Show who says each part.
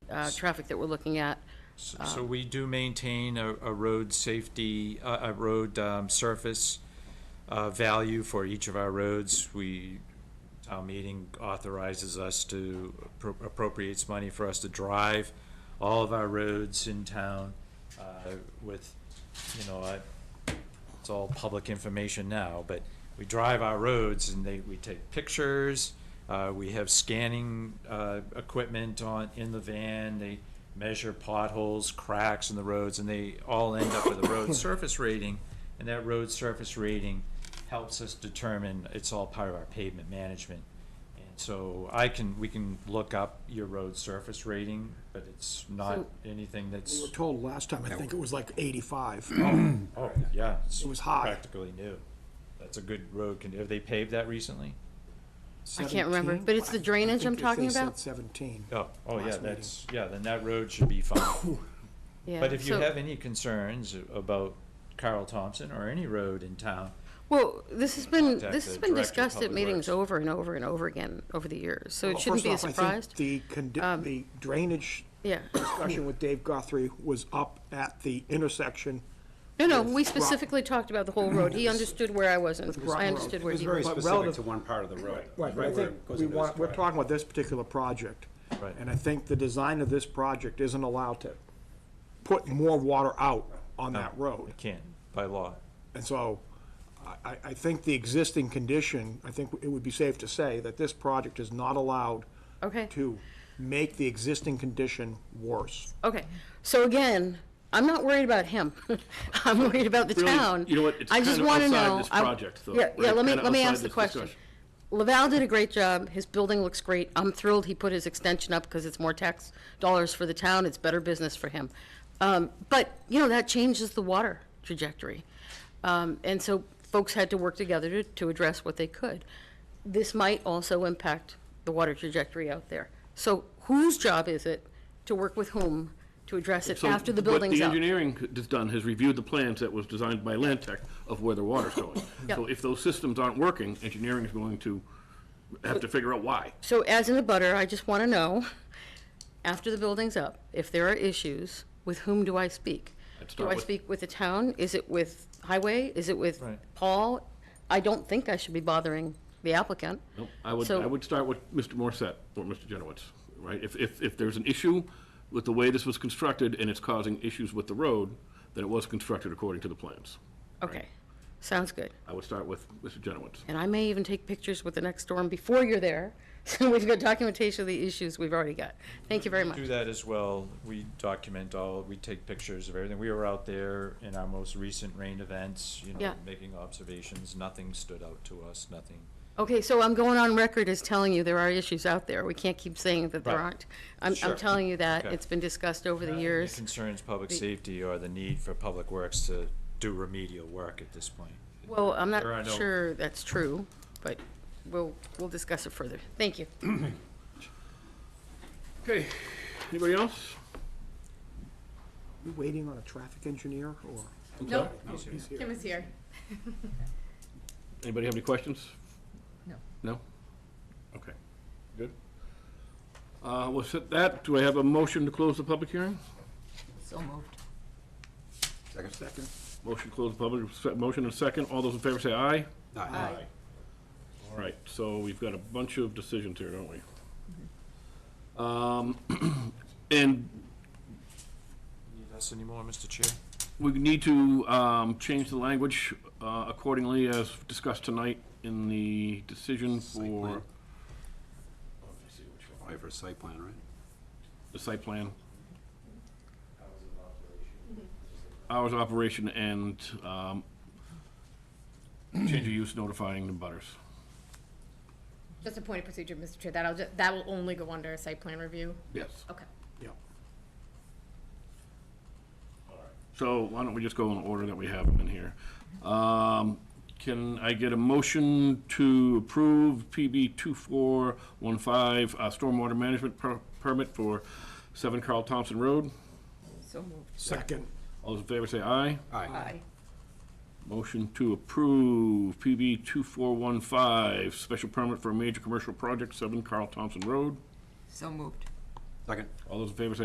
Speaker 1: uh, traffic that we're looking at.
Speaker 2: S- So we do maintain a, a road safety, a, a road, um, surface, uh, value for each of our roads. We, town meeting authorizes us to, appro- appropriates money for us to drive all of our roads in town, uh, with, you know, I, it's all public information now, but we drive our roads and they, we take pictures. Uh, we have scanning, uh, equipment on, in the van. They measure potholes, cracks in the roads, and they all end up with a road surface rating. And that road surface rating helps us determine, it's all part of our pavement management. And so I can, we can look up your road surface rating, but it's not
Speaker 1: So-
Speaker 2: anything
Speaker 3: We were
Speaker 2: that's,
Speaker 3: told last time, I think it was like 85.
Speaker 2: oh, yeah.
Speaker 3: It was high.
Speaker 2: Practically new. That's a good road. Can, have they paved that recently?
Speaker 1: I can't remember, but it's the drainage I'm talking about?
Speaker 3: 17.
Speaker 2: Oh, oh,
Speaker 3: Last
Speaker 2: yeah,
Speaker 3: meeting.
Speaker 2: that's, yeah, then that road should be fine.
Speaker 1: Yeah.
Speaker 2: But if you
Speaker 1: so-
Speaker 2: have any concerns about Carl Thompson or any road in town,
Speaker 1: Well, this has been,
Speaker 2: Contact
Speaker 1: this
Speaker 2: the
Speaker 1: has been
Speaker 2: Director of
Speaker 1: discussed at
Speaker 2: Public
Speaker 1: meetings
Speaker 2: Works.
Speaker 1: over and over and over again over the years, so it
Speaker 3: Well,
Speaker 1: shouldn't
Speaker 3: first
Speaker 1: be a
Speaker 3: off, I think
Speaker 1: surprise.
Speaker 3: The, condi-
Speaker 1: Um,
Speaker 3: the drainage
Speaker 1: Yeah.
Speaker 3: discussion with Dave Guthrie was up at the intersection.
Speaker 1: No, no, we
Speaker 3: Rock-
Speaker 1: specifically talked about the whole road. He understood where I wasn't.
Speaker 3: Rock
Speaker 1: I
Speaker 3: Road.
Speaker 1: understood where
Speaker 4: It was
Speaker 1: he was.
Speaker 4: very
Speaker 3: But
Speaker 4: specific
Speaker 3: relative-
Speaker 4: to one part of the road.
Speaker 3: Right, but I
Speaker 4: where
Speaker 3: think
Speaker 4: it goes
Speaker 3: we
Speaker 4: into
Speaker 3: want,
Speaker 4: this
Speaker 3: we're
Speaker 4: drive.
Speaker 3: talking about this particular project.
Speaker 2: Right.
Speaker 3: And I think the design of this project isn't allowed to put more water out on that road.
Speaker 2: it can't by law.
Speaker 3: And so I- I, I think the existing condition, I think it would be safe to say that this project is not allowed
Speaker 1: Okay.
Speaker 3: to make the existing condition worse.
Speaker 1: Okay, so again, I'm not worried about him. I'm worried about the
Speaker 5: Really,
Speaker 1: town.
Speaker 5: you know what, it's
Speaker 1: I just
Speaker 5: kinda
Speaker 1: wanna
Speaker 5: outside
Speaker 1: know-
Speaker 5: this
Speaker 1: I-
Speaker 5: project, though,
Speaker 1: Yeah, yeah,
Speaker 5: right?
Speaker 1: let me,
Speaker 5: Kinda
Speaker 1: let me
Speaker 5: outside
Speaker 1: ask the
Speaker 5: this
Speaker 1: question.
Speaker 5: discussion.
Speaker 1: Laval did a great job. His building looks great. I'm thrilled he put his extension up because it's more tax dollars for the town. It's better business for him. Um, but, you know, that changes the water trajectory. Um, and so folks had to work together to, to address what they could. This might also impact the water trajectory out there. So whose job is it to work with whom to address it
Speaker 5: So
Speaker 1: after the building's
Speaker 5: What
Speaker 1: up?
Speaker 5: the engineering has done has reviewed the plans that was designed by Land Tech of where the water's going.
Speaker 1: Yep.
Speaker 5: So if those systems aren't working, engineering is going to have to figure out why.
Speaker 1: So as in a butter, I just want to know, after the building's up, if there are issues, with whom do I speak?
Speaker 5: Let's
Speaker 1: Do
Speaker 5: start
Speaker 1: I
Speaker 5: with-
Speaker 1: speak with the town? Is it with highway? Is it with
Speaker 2: Right.
Speaker 1: Paul? I don't think I should be bothering the applicant.
Speaker 5: Nope, I would,
Speaker 1: So-
Speaker 5: I would start with Mr. Morissette or Mr. Genowitz, right? If, if, if there's an issue with the way this was constructed and it's causing issues with the road, then it was constructed according to the plans.
Speaker 1: Okay, sounds good.
Speaker 5: I would start with Mr. Genowitz.
Speaker 1: And I may even take pictures with the next storm before you're there, so we've got documentation of the issues we've already got. Thank you very much.
Speaker 2: Do that as well. We document all, we take pictures of everything. We were out there in our most recent rain events, you know,
Speaker 1: Yeah.
Speaker 2: making observations. Nothing stood out to us, nothing.
Speaker 1: Okay, so I'm going on record as telling you there are issues out there. We can't keep saying that there
Speaker 2: Right.
Speaker 1: aren't. I'm, I'm
Speaker 2: Sure.
Speaker 1: telling you that.
Speaker 2: Okay.
Speaker 1: It's been discussed over the years.
Speaker 2: Concerns public safety or the need for public works to do remedial work at this point.
Speaker 1: Well, I'm
Speaker 2: There are
Speaker 1: not
Speaker 2: no-
Speaker 1: sure that's true, but we'll, we'll discuss it further. Thank you.
Speaker 5: Okay, anybody else?
Speaker 3: You waiting on a traffic engineer or?
Speaker 6: No, Kim is here.
Speaker 5: Anybody have any questions?
Speaker 6: No.
Speaker 5: No? Okay, good. Uh, we'll set that, do I have a motion to close the public hearing?
Speaker 6: So moved.
Speaker 4: Second.
Speaker 5: Motion to close the public, se- motion and second, all those in favor say aye.
Speaker 4: Aye.
Speaker 5: All right, so we've got a bunch of decisions here, don't we? Um, and
Speaker 2: Need us anymore, Mr. Chair?
Speaker 5: we need to, um, change the language, uh, accordingly as discussed tonight in the decision
Speaker 4: Site plan.
Speaker 5: for
Speaker 4: Aye for a site plan, right?
Speaker 5: the site plan. Hours of operation and um, change of use notifying the butters.
Speaker 6: Just a point of procedure, Mr. Chair, that'll, ju- that will only go under site plan review.
Speaker 5: Yes.
Speaker 6: Okay.
Speaker 3: Yeah.
Speaker 5: So why don't we just go in order that we have them in here? Um, Can I get a motion to approve PB 2415, uh, stormwater management per- permit for 7 Carl Thompson Road?
Speaker 6: So moved.
Speaker 3: Second.
Speaker 5: All those in favor say aye.
Speaker 4: Aye.
Speaker 5: Motion to approve PB 2415, special permit for a major commercial project, 7 Carl Thompson Road.
Speaker 6: So moved.
Speaker 4: Second.
Speaker 5: All those in favor say